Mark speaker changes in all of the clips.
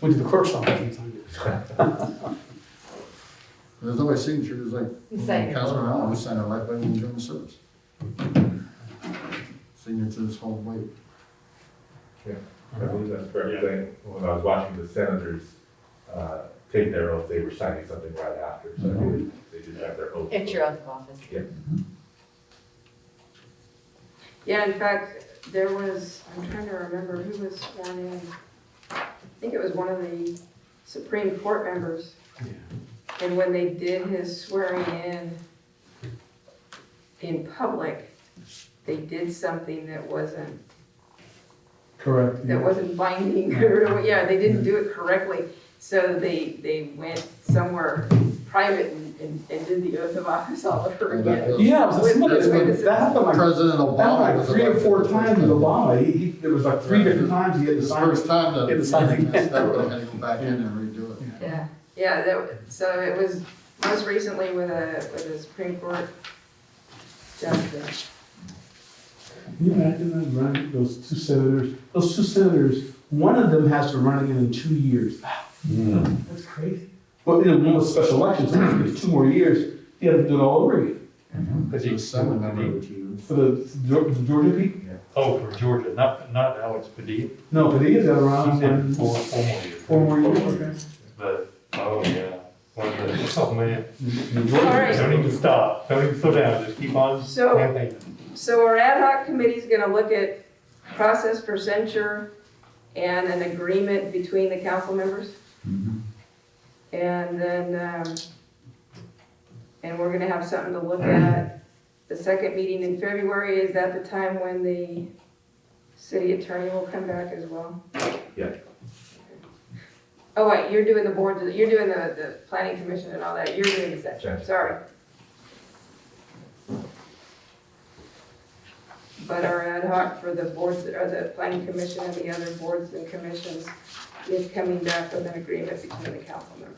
Speaker 1: went to the clerk's office and signed it.
Speaker 2: There's no way signature is like,
Speaker 3: You say-
Speaker 2: Councilman Allen, we sign our life by enjoying the service. Signatures hold weight.
Speaker 4: I believe that's correct. I think When I was watching the senators uh, take their oath, they were signing something right after, so I believe they did have their oath.
Speaker 3: It's your oath of office.
Speaker 4: Yeah.
Speaker 5: Yeah, in fact, there was, I'm trying to remember who was sworn in. I think it was one of the Supreme Court members. And when they did his swearing in, in public, they did something that wasn't,
Speaker 1: Correct.
Speaker 5: that wasn't binding. Yeah, they didn't do it correctly. So they, they went somewhere private and, and and did the oath of office all over
Speaker 2: Well,
Speaker 5: again.
Speaker 2: that was-
Speaker 1: Yeah, it was a similar,
Speaker 2: That's what-
Speaker 1: that happened like, that
Speaker 2: President Obama
Speaker 1: happened
Speaker 2: was
Speaker 1: like three or
Speaker 2: elected
Speaker 1: four
Speaker 2: first
Speaker 1: times with
Speaker 2: time.
Speaker 1: Obama. He, he, there was like three different times he had to
Speaker 2: It's the
Speaker 1: sign.
Speaker 2: first time that.
Speaker 1: Get the sign.
Speaker 2: That's not really gonna go back in and redo it.
Speaker 5: Yeah, yeah, that, w- so it was most recently with a, with a Supreme Court justice.
Speaker 1: Can you imagine them running, those two senators, those two senators, one of them has to run again in two years.
Speaker 2: Hmm.
Speaker 1: That's crazy. Well, in one of the special elections, it's two more years, you have to do it all over again.
Speaker 6: But
Speaker 2: The
Speaker 6: he-
Speaker 2: Senate member
Speaker 6: he-
Speaker 2: would choose.
Speaker 1: For the the Geor- the Georgia people?
Speaker 6: Oh, for Georgia, not, not Alex Padilla.
Speaker 1: No, but he has got
Speaker 6: He
Speaker 1: around
Speaker 6: said
Speaker 1: and
Speaker 6: four, four more years.
Speaker 1: four more years.
Speaker 6: But, oh, yeah. One of the- Oh, man.
Speaker 5: All right,
Speaker 6: Don't even stop. Don't even slow down. Just keep on
Speaker 5: So-
Speaker 6: campaigning.
Speaker 5: so our ad hoc committee's gonna look at process for censure and an agreement between the council members.
Speaker 1: Mm-hmm.
Speaker 5: And then, um, and we're gonna have something to look at. The second meeting in February is at the time when the city attorney will come back as well.
Speaker 4: Yeah.
Speaker 5: Oh, wait, you're doing the board, you're doing the, the planning commission and all that, you're doing the section,
Speaker 4: Gotcha.
Speaker 5: sorry. But our ad hoc for the boards, or the planning commission and the other boards and commissions is coming back with an agreement between the council members.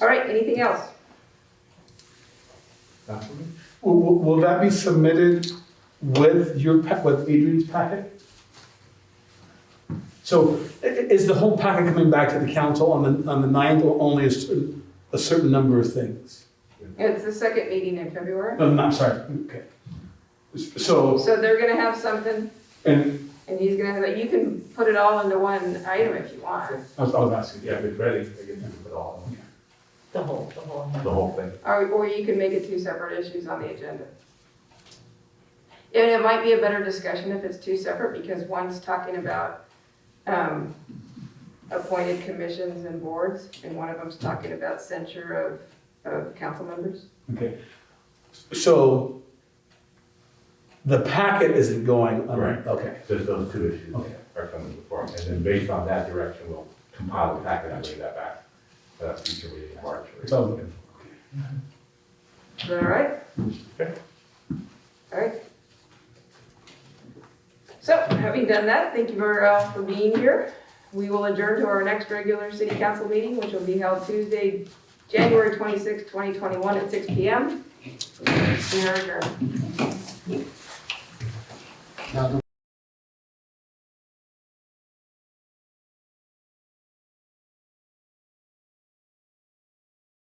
Speaker 5: All right, anything else?
Speaker 4: Not for me.
Speaker 1: Will, will- will that be submitted with your, pa- with Adrian's packet? So i- i- is the whole packet coming back to the council on the, on the ninth or only a certain, a certain number of things?
Speaker 5: It's the second meeting in February,
Speaker 1: No, no, I'm sorry, okay. So,
Speaker 5: so they're gonna have something,
Speaker 1: and,
Speaker 5: and he's gonna have, you can put it all into one item if you want.
Speaker 1: I was, I was asking,
Speaker 4: Yeah, if it's ready, I guess you can put it all,
Speaker 3: The whole, the whole.
Speaker 4: the whole thing.
Speaker 5: Or, or you can make it two separate issues on the agenda. And it might be a better discussion if it's two separate, because one's talking about, um, appointed commissions and boards, and one of them's talking about censure of, of council members.
Speaker 1: okay. So the packet isn't going on,
Speaker 4: Right.
Speaker 1: okay,
Speaker 4: Just those two issues
Speaker 1: Okay.
Speaker 4: are coming before, and then based on that direction, we'll compile the packet and bring that back. Uh, future meeting in March. or-
Speaker 1: So-
Speaker 5: Is that all right?
Speaker 4: Okay.
Speaker 5: All right. So, having done that, thank you very all for being here. We will adjourn to our next regular city council meeting, which will be held Tuesday, January twenty sixth, 2021 at six PM. We are adjourned.
Speaker 2: Now, do